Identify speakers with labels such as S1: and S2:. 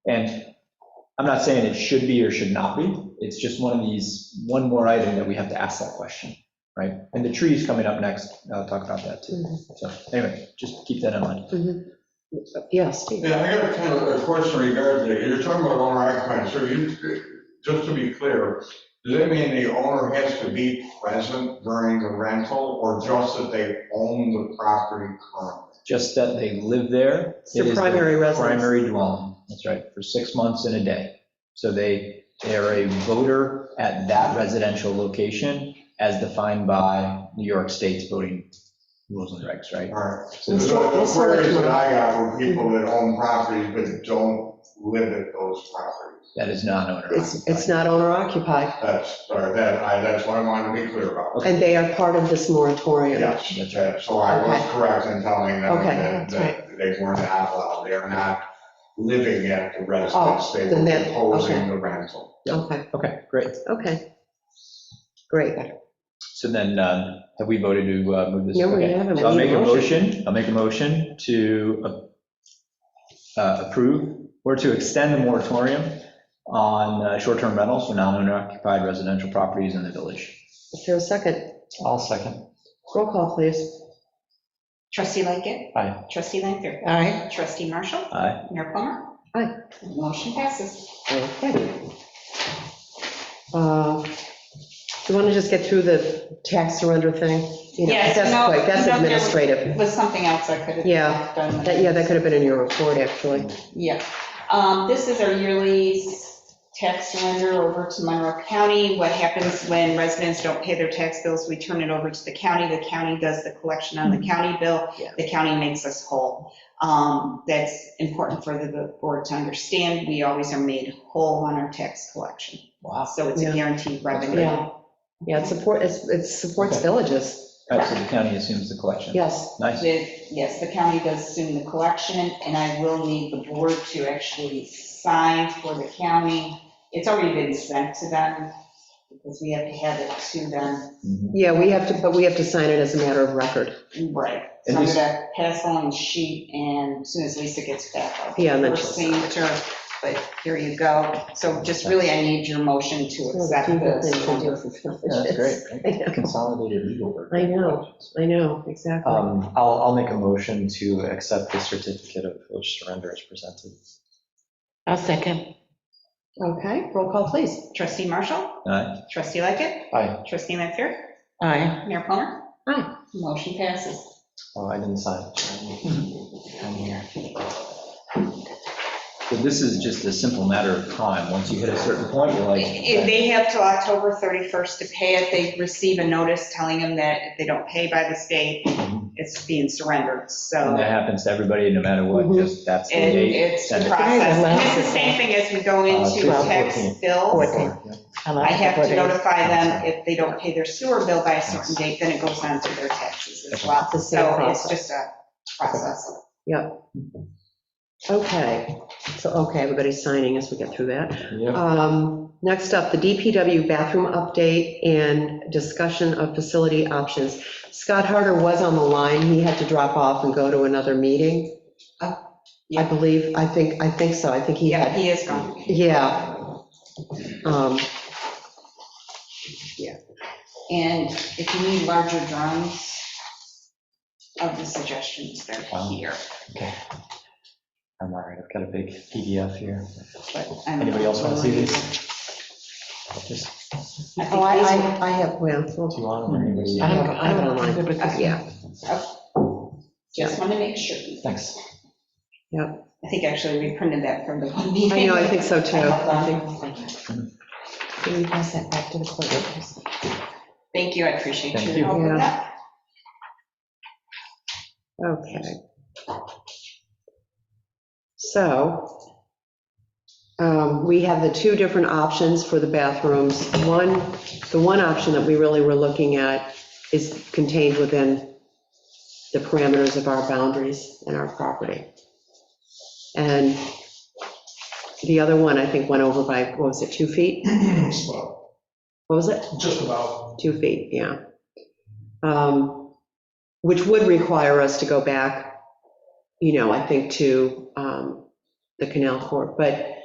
S1: And I'm not saying it should be or should not be, it's just one of these, one more item that we have to ask that question, right? And the trees coming up next, I'll talk about that too.
S2: Mhm.
S1: So anyway, just keep that in mind.
S2: Mhm. Yeah, Steve.
S3: Yeah, I got a kind of a question regarding that. You're talking about owner occupied, so you, just to be clear, does that mean the owner has to be present during the rental or just that they own the property currently?
S1: Just that they live there.
S2: It's their
S1: It is their
S2: primary residence.
S1: Primary dwelling, that's right, for six months and a day. So they, they are a voter at that residential location as defined by New York State's voting rules and regs, right?
S3: All right. So
S2: We'll sort- we'll
S3: the
S2: sort it
S3: queries that
S2: tomorrow.
S3: I got were people that own properties but don't live at those properties.
S1: That is non-owner
S2: It's,
S1: occupied.
S2: it's not owner occupied,
S3: That's, or that, I, that's what I wanted to be clear about.
S2: and they are part of this moratorium.
S3: Yes,
S1: That's right.
S3: Yeah, So I was
S2: Okay.
S3: correct in telling them
S2: Okay,
S3: that
S2: that's
S3: that they weren't out loud, they're not living at the residence, they
S2: Oh, then
S3: were
S2: that-
S3: proposing
S2: okay.
S3: the rental.
S2: Okay,
S1: Okay, great.
S2: okay. Great.
S1: So then, uh, have we voted to uh, move this?
S2: No, we
S1: Okay.
S2: haven't.
S1: So I'll make a
S2: Motion.
S1: motion, I'll make a motion to uh, approve or to extend the moratorium on uh, short-term rentals for non-owner occupied residential properties in the village.
S2: Is there a second?
S1: I'll second.
S2: Roll call, please.
S4: Trustee Lightkit.
S1: Aye.
S4: Trustee Lanfair.
S2: Aye.
S4: Trustee Marshall.
S1: Aye.
S4: Mayor Plummer.
S2: Aye.
S4: Motion passes.
S2: Okay. Uh, You want to just get through the tax surrender thing? You know,
S4: Yes,
S2: That's
S4: no,
S2: quick, that's
S4: no, there was-
S2: administrative.
S4: It was something else I could have.
S2: Yeah,
S4: done.
S2: That, yeah, that could have been in your report, actually.
S4: Yeah. Um, This is our yearly tax surrender over to Monroe County. What happens when residents don't pay their tax bills, we turn it over to the county. The county does the collection on the county bill.
S2: Mm-hmm. Yeah.
S4: The county makes us whole. Um, That's important for the board to understand. We always are made whole on our tax collection.
S1: Wow.
S4: So it's
S2: Yeah.
S4: a guaranteed revenue.
S2: Yeah. Yeah, it support, it's- it supports
S1: Okay.
S2: villages,
S1: So the county assumes the collection.
S2: yes.
S1: Nice.
S4: The- Yes, the county does assume the collection, and I will need the board to actually sign for the county. It's already been sent to them, because we have to have it to them.
S1: Mhm.
S2: Yeah, we have to, but we have to sign it as a matter of record.
S4: Right. So
S1: And
S4: I'm
S1: this-
S4: gonna pass along the sheet, and as soon as Lisa gets back, I'll.
S2: Yeah, and then
S4: Her
S2: she'll-
S4: signature, but here you go. So just really, I need your motion to accept this.
S1: Yeah, That's
S2: this.
S1: great. Consolidated legal work.
S2: I know. I know, exactly.
S5: Um, I'll, I'll make a motion to accept the certificate of village surrender as presented.
S6: I'll second.
S2: Okay, roll call, please.
S4: Trustee Marshall?
S1: Aye.
S4: Trustee Lightkit?
S5: Aye.
S4: Trustee Lanfair?
S6: Aye.
S4: Mayor Plummer?
S2: Aye.
S4: Motion passes.
S5: Oh, I didn't sign. I'm here.
S1: So this is just a simple matter of time. Once you hit a certain point, you're like.
S4: If They have till October 31st to pay it. They receive a notice telling them that if they don't pay by this date, it's being surrendered.
S1: And that
S4: So
S1: happens to everybody, no matter what,
S2: Mhm.
S1: just that's the
S4: it-
S1: date.
S4: it's the
S1: Send it.
S4: process.
S6: Guys, I
S4: And
S6: love
S4: It's the
S6: this.
S4: same thing as we go
S5: Uh,
S4: into
S5: twelve,
S4: tax
S5: fourteen.
S4: bills.
S6: Fourteen.
S4: I have to notify them if they don't pay their sewer bill by a certain date, then it goes on to their taxes as well.
S2: The same
S4: So it's
S2: process.
S4: just a process.
S2: Okay, so, okay, everybody's signing as we get through that.
S5: Yeah.
S2: Um, Next up, the DPW bathroom update and discussion of facility options. Scott Harder was on the line, he had to drop off and go to another meeting. I
S4: Uh, Yeah.
S2: believe, I think, I think so, I think he
S4: Yeah,
S2: had,
S4: he is gone.
S2: yeah. Um,
S4: And if you need larger drawings of the suggestions, they're here.
S5: Okay. I'm all right, I've got a big PDF here.
S4: But I'm-
S5: Anybody else want to see these? Just,
S4: I
S2: Oh, I,
S4: think
S2: I I have, well,
S5: do you want them or anybody?
S6: I don't,
S2: Yeah,
S6: I
S2: I don't
S6: don't
S2: mind.
S6: mind it with
S4: these-
S6: this.
S2: yeah,
S4: Just want to make sure.
S5: Thanks.
S4: I think actually we printed that from the one meeting.
S2: I know, I think so too.
S6: Can we pass that back to the clerk? please?
S4: Thank you, I appreciate
S5: Thank
S4: your
S5: you.
S4: help with
S2: Yeah.
S4: that.
S2: Okay. So um, we have the two different options for the bathrooms. One, the one option that we really were looking at is contained within the parameters of our boundaries and our property. And the other one, I think, went over by, what was it, two feet?
S7: Well,
S2: What was it?
S7: just about,
S2: Two feet, yeah. Um, Which would require us to go back, you know, I think to um, the canal court, but